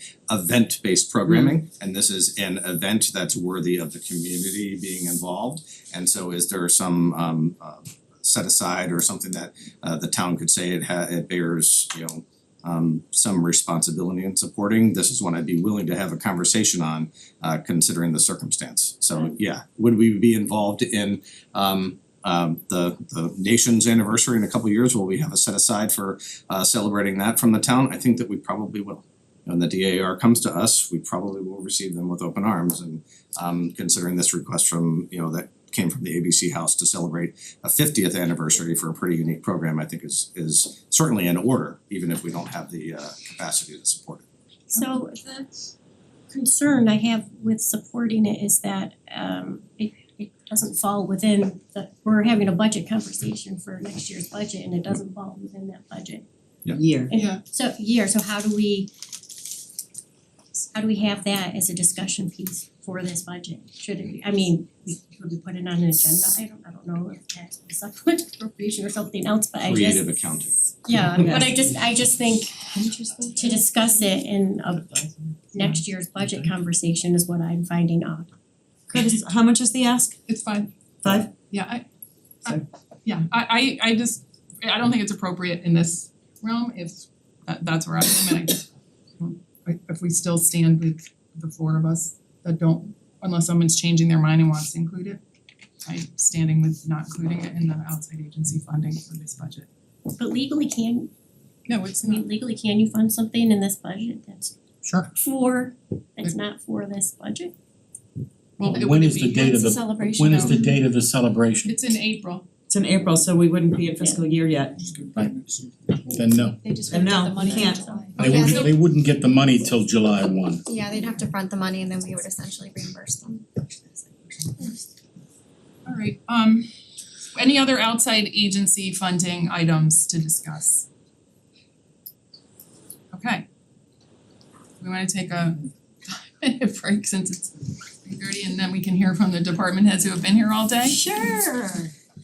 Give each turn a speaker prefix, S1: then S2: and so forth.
S1: event-based programming, and this is an event that's worthy of the community being involved. And so is there some um uh set aside or something that uh the town could say it ha- it bears, you know, um some responsibility in supporting, this is one I'd be willing to have a conversation on uh considering the circumstance. So yeah, would we be involved in um um the the nation's anniversary in a couple years, will we have a set aside for uh celebrating that from the town? I think that we probably will. When the DAR comes to us, we probably will receive them with open arms and um considering this request from, you know, that came from the ABC House to celebrate a fiftieth anniversary for a pretty unique program, I think is is certainly in order, even if we don't have the uh capacity to support it.
S2: So the concern I have with supporting it is that um it it doesn't fall within the, we're having a budget conversation for next year's budget and it doesn't fall within that budget.
S1: Yeah.
S3: year.
S2: And
S4: Yeah.
S2: So, yeah, so how do we how do we have that as a discussion piece for this budget? Should it be, I mean, we would we put it on an agenda? I don't I don't know if that's a supplement appropriation or something else, but I just
S1: Creative accounting.
S2: yeah, but I just I just think to discuss it in a next year's budget conversation is what I'm finding odd.
S3: Curtis, how much is the ask?
S4: It's fine.
S3: Five?
S4: Yeah, I I yeah, I I I just I don't think it's appropriate in this realm if that that's where I am and I just I- if we still stand with the four of us that don't unless someone's changing their mind and wants to include it, I'm standing with not including it in the outside agency funding for this budget.
S2: But legally can,
S4: No, it's
S2: I mean legally can you fund something in this budget that's
S4: Sure.
S2: for, that's not for this budget?
S4: Well, it
S5: When
S4: wouldn't
S5: is the
S4: be-
S5: date of the,
S2: celebration
S5: when is the date of the celebration?
S4: It's in April.
S3: It's in April, so we wouldn't be in fiscal year yet.
S5: Right. Then no,
S6: They just
S3: And
S6: wouldn't
S3: no,
S6: get the money.
S3: you can't.
S6: until July.
S5: they
S4: Okay,
S5: wouldn't,
S4: so-
S5: they wouldn't get the money till July one.
S6: Yeah, they'd have to front the money and then we would essentially reimburse them.
S4: Alright, um any other outside agency funding items to discuss? Okay. We wanna take a minute break since it's three thirty and then we can hear from the department heads who have been here all day?
S2: Sure.